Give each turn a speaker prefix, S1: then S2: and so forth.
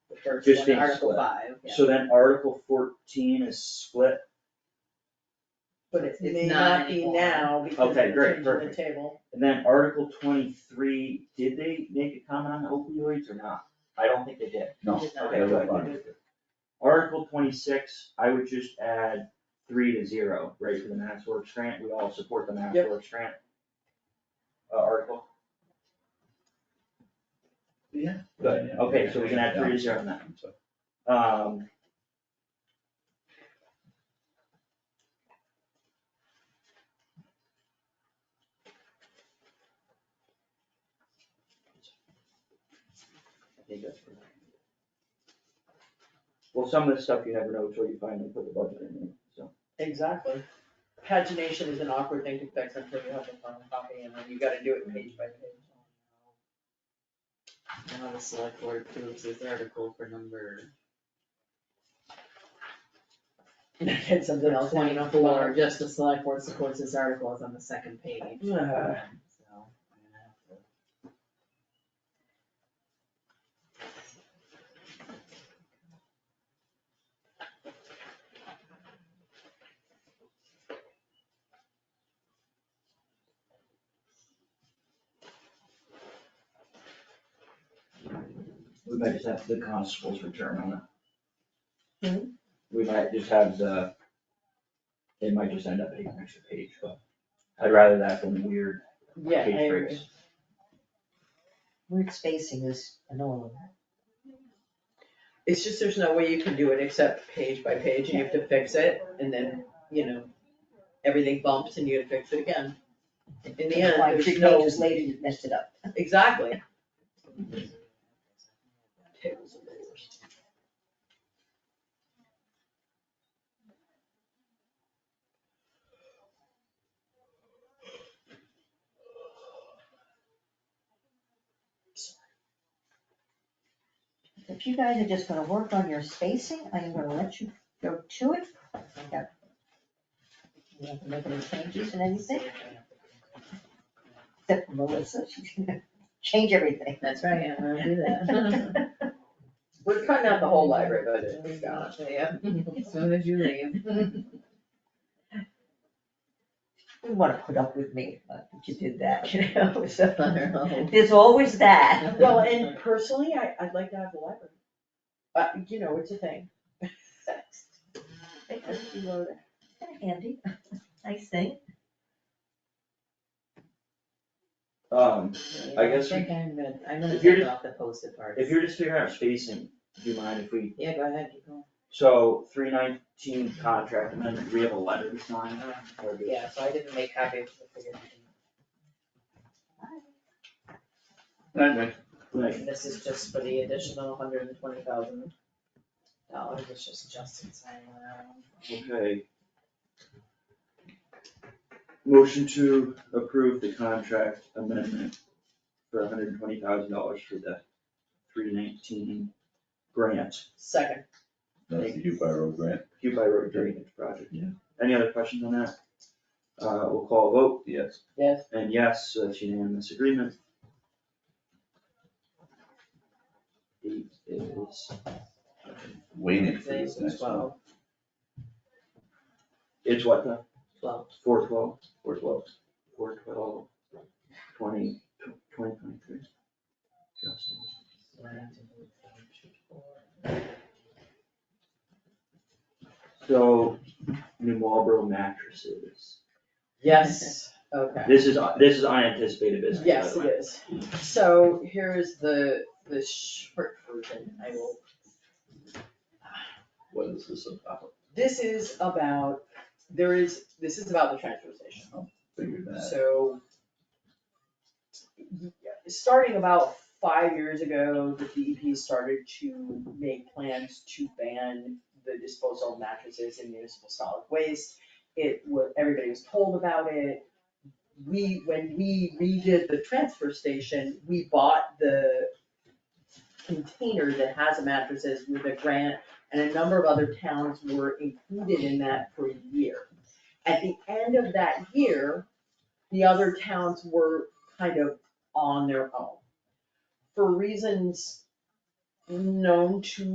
S1: first
S2: Just
S1: one,
S2: being
S1: Article
S2: split.
S1: five, yeah.
S2: So then Article fourteen is split,
S1: but it
S3: It's
S1: may
S3: not
S1: not be
S3: anymore.
S1: now because
S2: Okay,
S1: they're
S2: great,
S1: changing the
S2: perfect.
S1: table.
S2: and then Article twenty-three, did they make a comment on opioids or not? I don't think they did.
S3: It
S4: No,
S3: is not.
S2: Okay,
S4: they're
S2: good.
S4: fine.
S2: Article twenty-six, I would just add three to zero, right, for the Mass Works grant, we all support the Mass
S1: Yep.
S2: Works grant. Uh, article, good,
S4: Yeah,
S2: okay, so we can add three to
S4: yeah.
S2: zero on that,
S4: So,
S2: um. I think that's pretty- Well, some of the stuff you never know until you finally put the budget in, it, so.
S1: Exactly. Pagination is an awkward thing to fix until you have the final copy and then you gotta do it page by page.
S3: Now the select board approves this article for number
S1: And something else hanging off the
S3: twenty-four,
S1: bottom.
S3: just the select board supports this article is on the second page.
S1: Ah.
S3: So, I'm gonna have to-
S2: We might just have the constable's return on it.
S1: Hmm?
S2: We might just have the, it might just end up being an extra page, but I'd rather that than weird
S1: Yeah, I
S2: page
S1: agree.
S2: breaks.
S5: Weird spacing is annoying.
S1: It's just there's no way you can do it except page by page and you have to fix it and then, you know, everything bumps and you gotta fix it again. In the end,
S5: Like
S1: there's
S5: three
S1: no,
S5: pages later, you messed it up.
S1: exactly.
S5: If you guys are just gonna work on your spacing, I'm gonna let you go to it. Yeah. You don't have to make any changes and anything, except for Melissa, she's gonna change everything.
S3: That's right, I'm gonna do that.
S1: We're cutting out the whole library budget, we
S3: Yeah, as soon as you leave.
S5: You wanna put up with me, but you did that, you know, so.
S3: Well,
S5: There's always that.
S1: Well, and personally, I, I'd like to have the library. But, you know, it's a thing.
S5: They just reload it. Kinda Handy, nice thing.
S2: Um, I guess
S3: think I'm gonna, I'm gonna
S2: If you're
S3: take
S2: just-
S3: off the posted part.
S2: if you're just figuring out spacing, do you mind if we,
S3: Yeah, go ahead, keep going.
S2: so three nineteen contract amendment, we have a letter to sign, or do-
S3: Yeah, so I didn't make copy of the figure.
S4: Anyway,
S2: like,
S3: And this is just for the additional hundred and twenty thousand dollars, it's just Justin signing that one.
S2: Okay. Motion to approve the contract amendment for hundred and twenty thousand dollars for the three nineteen grant,
S1: Second,
S4: That's the Hugh Road grant,
S2: Hugh by Road Drainage Project.
S4: Yeah.
S2: Any other questions on that? Uh, we'll call a vote,
S4: yes.
S1: yes,
S2: and yes, so that's unanimous agreement. Date is,
S4: Waiting for this
S3: Today's
S4: next one.
S3: twelve,
S2: it's what the,
S3: twelve,
S2: four twelve, four twelve, four twelve, twenty, twenty twenty-three. Justin.
S3: so I have to move page four.
S2: So, New Marlboro mattresses.
S1: yes, okay.
S2: This is, this is unanticipated business, by
S1: Yes,
S2: the
S1: it
S2: way.
S1: is. So here is the, the short version, I will
S4: What is this about?
S1: This is about, there is, this is about the transfer station,
S4: Figured that.
S1: so. y- Starting about five years ago, the DEP started to make plans to ban the disposal of mattresses in municipal solid waste. It was, everybody was told about it. We, when we redid the transfer station, we bought the container that has the mattresses with a grant and a number of other towns were included in that for a year. At the end of that year, the other towns were kind of on their own. For reasons known to